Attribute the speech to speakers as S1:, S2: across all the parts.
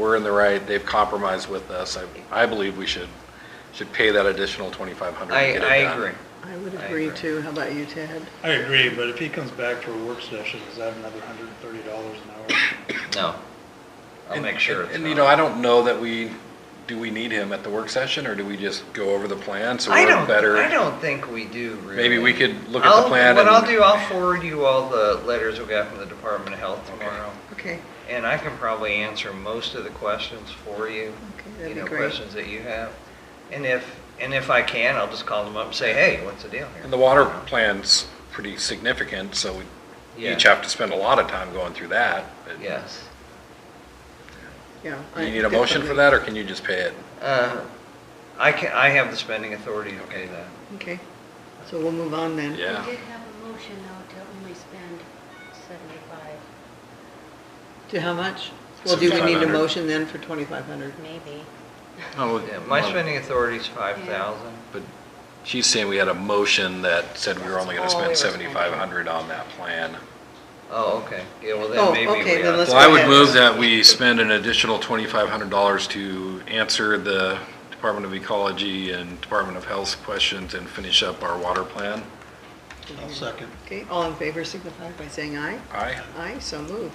S1: We're in the right, they've compromised with us. I, I believe we should, should pay that additional 2,500.
S2: I, I agree.
S3: I would
S2: I
S3: agree
S2: agree.
S3: too. How about you, Ted?
S4: I agree, but if he comes back for a work session, is that another hundred and thirty dollars an hour?
S2: No. I'll
S1: And-
S2: make sure
S1: and-
S2: it's
S1: And, you
S2: not.
S1: know, I don't know that we, do we need him at the work session, or do we just go over the plan so
S2: I
S1: we're
S2: don't,
S1: better?
S2: I don't think we do really.
S1: Maybe we could look at the
S2: I'll-
S1: plan
S2: What I'll
S1: and-
S2: do, I'll forward you all the letters we got from the Department of Health tomorrow.
S3: Okay,
S2: And I can probably answer most of the questions for you.
S3: Okay, that'd
S2: you
S3: be
S2: know,
S3: great.
S2: Questions that you have. And if, and if I can, I'll just call them up and say, hey, what's the deal here?
S1: And the water plan's pretty significant, so we
S2: Yeah.
S1: each have to spend a lot of time going through that. but-
S2: Yes.
S3: yeah.
S1: Do
S3: I-
S1: you need a motion for
S3: definitely.
S1: that, or can you just pay it?
S2: Uh, I can, I have the spending authority to pay that.
S3: Okay, so we'll move on then.
S1: Yeah.
S5: We did have a motion though to only spend seventy-five,
S3: To how much? Well, do we need a
S1: 7,500.
S3: motion then for 2,500?
S5: maybe.
S1: Oh,
S2: Yeah, My spending authority is five thousand.
S1: But she's saying we had a motion that said we were only gonna
S5: That's all we
S1: spend
S5: were
S1: seventy-five hundred on that plan.
S2: Oh, okay. Yeah, well
S3: Oh,
S2: then maybe we ought
S3: okay, then let's
S1: So
S3: go
S1: I would
S3: ahead.
S1: move that we spend an additional twenty-five hundred dollars to answer the Department of Ecology and Department of Health's questions and finish up our water plan.
S4: I'll second.
S3: Okay, all in favor signify by saying aye.
S1: Aye.
S3: Aye, so moved.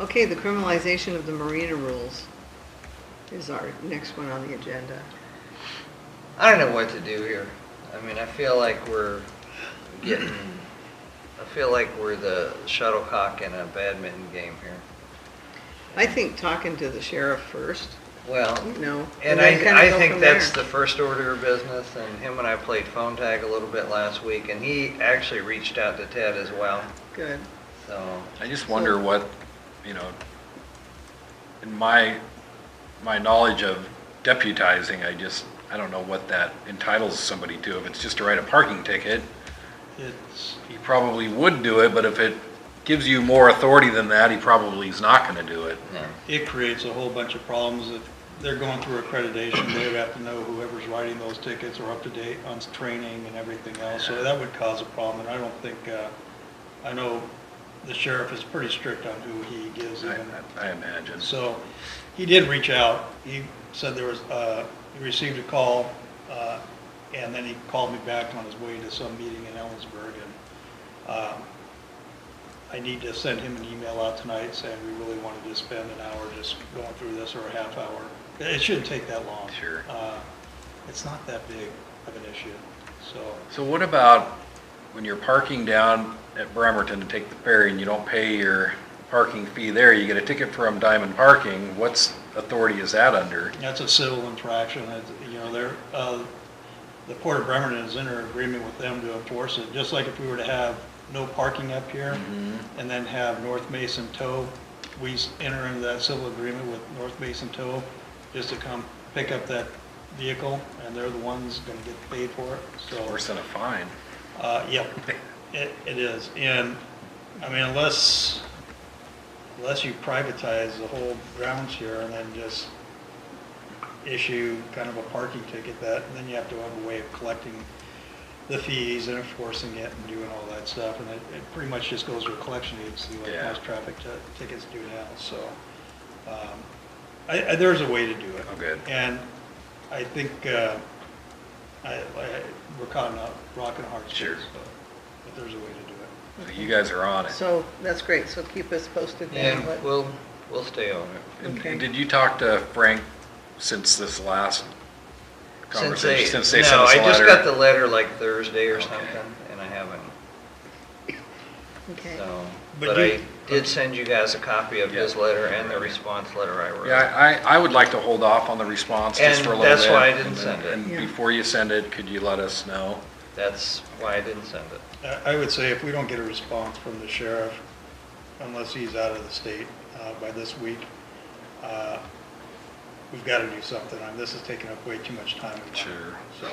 S3: Okay, the criminalization of the marina rules is our next one on the agenda.
S2: I don't know what to do here. I mean, I feel like we're getting, I feel like we're the shuttlecock in a badminton game here.
S3: I think talking to the sheriff first,
S2: Well,
S3: you know.
S2: and
S3: then kinda
S2: I, I
S3: go
S2: think
S3: from
S2: that's the
S3: there.
S2: first order of business, and him and I played phone tag a little bit last week, and he actually reached out to Ted as well,
S3: Good.
S2: so.
S1: I just wonder what, you know, in my, my knowledge of deputizing, I just, I don't know what that entitles somebody to. If it's just to write a parking ticket,
S4: It's,
S1: he probably would do it, but if it gives you more authority than that, he probably is not gonna do it.
S2: No.
S4: it creates a whole bunch of problems. If they're going through accreditation, they would have to know whoever's writing those tickets are up to date on training and everything else. So that would cause a problem, and I don't think, uh, I know the sheriff is pretty strict on who he gives
S1: I,
S4: even
S1: I imagine.
S4: So he did reach out. He said there was, uh, he received a call, uh, and then he called me back on his way to some meeting in Ellensburg. And um, I need to send him an email out tonight saying we really wanted to spend an hour just going through this or a half hour. It shouldn't take that long.
S1: Sure.
S4: Uh, It's not that big of an issue, so.
S1: So what about when you're parking down at Bremerton to take the ferry and you don't pay your parking fee there, you get a ticket from Diamond Parking, what's authority is that under?
S4: That's a civil infraction, It's, you know, they're, uh, the Port of Bremerton is in an agreement with them to enforce it, just like if we were to have no parking up here and then have North Mason Tow, we s- enter into that civil agreement with North Mason Tow just to come pick up that vehicle, and they're the ones gonna get paid for it, so.
S1: Worse than a fine.
S4: Uh, yep, it, it is, and, I mean, unless, unless you privatize the whole grounds here and then just issue kind of a parking ticket that, then you have to have a way of collecting the fees and enforcing it and doing all that stuff, and it, it pretty much just goes to a collection agency like
S1: Yeah.
S4: most traffic ti- tickets do now, so. um, I, I, there's a way to do it.
S1: Oh, good.
S4: And I think, uh, I, I, we're caught in a rock and a hard
S1: Sure.
S4: space, but, but there's a way to do it.
S1: So You guys are on it.
S3: So that's great, so keep us posted then.
S2: Yeah,
S3: what-
S2: we'll, we'll stay on it.
S1: And
S3: okay.
S1: Did you talk to Frank since this last
S2: Since they,
S1: conversation? Since they sent
S2: no,
S1: us
S2: I
S1: a
S2: just
S1: letter?
S2: got the letter like Thursday or
S1: Okay.
S2: something, and I haven't,
S3: Okay.
S2: so.
S4: But
S2: But I
S4: you-
S2: did send you guys a copy of his
S1: Yeah.
S2: letter and the response letter I wrote.
S1: Yeah, I, I would like to hold off on the response just
S2: And
S1: for a little bit.
S2: that's why I didn't
S1: and then-
S2: send it.
S1: And
S3: Yeah.
S1: before you send it, could you let us know?
S2: That's why I didn't send it.
S4: I, I would say if we don't get a response from the sheriff, unless he's out of the state, uh, by this week, uh, we've gotta do something, and this is taking up way too much time. and money.
S1: Sure.
S4: So,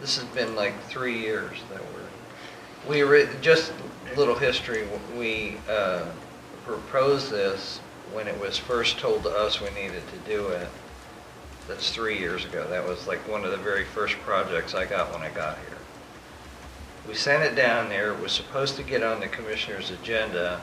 S2: This has been like three years that we're, we were, just a little history, we uh, proposed this when it was first told to us we needed to do it. That's three years ago. That was like one of the very first projects I got when I got here. We sent it down there, it was supposed to get on the commissioner's agenda,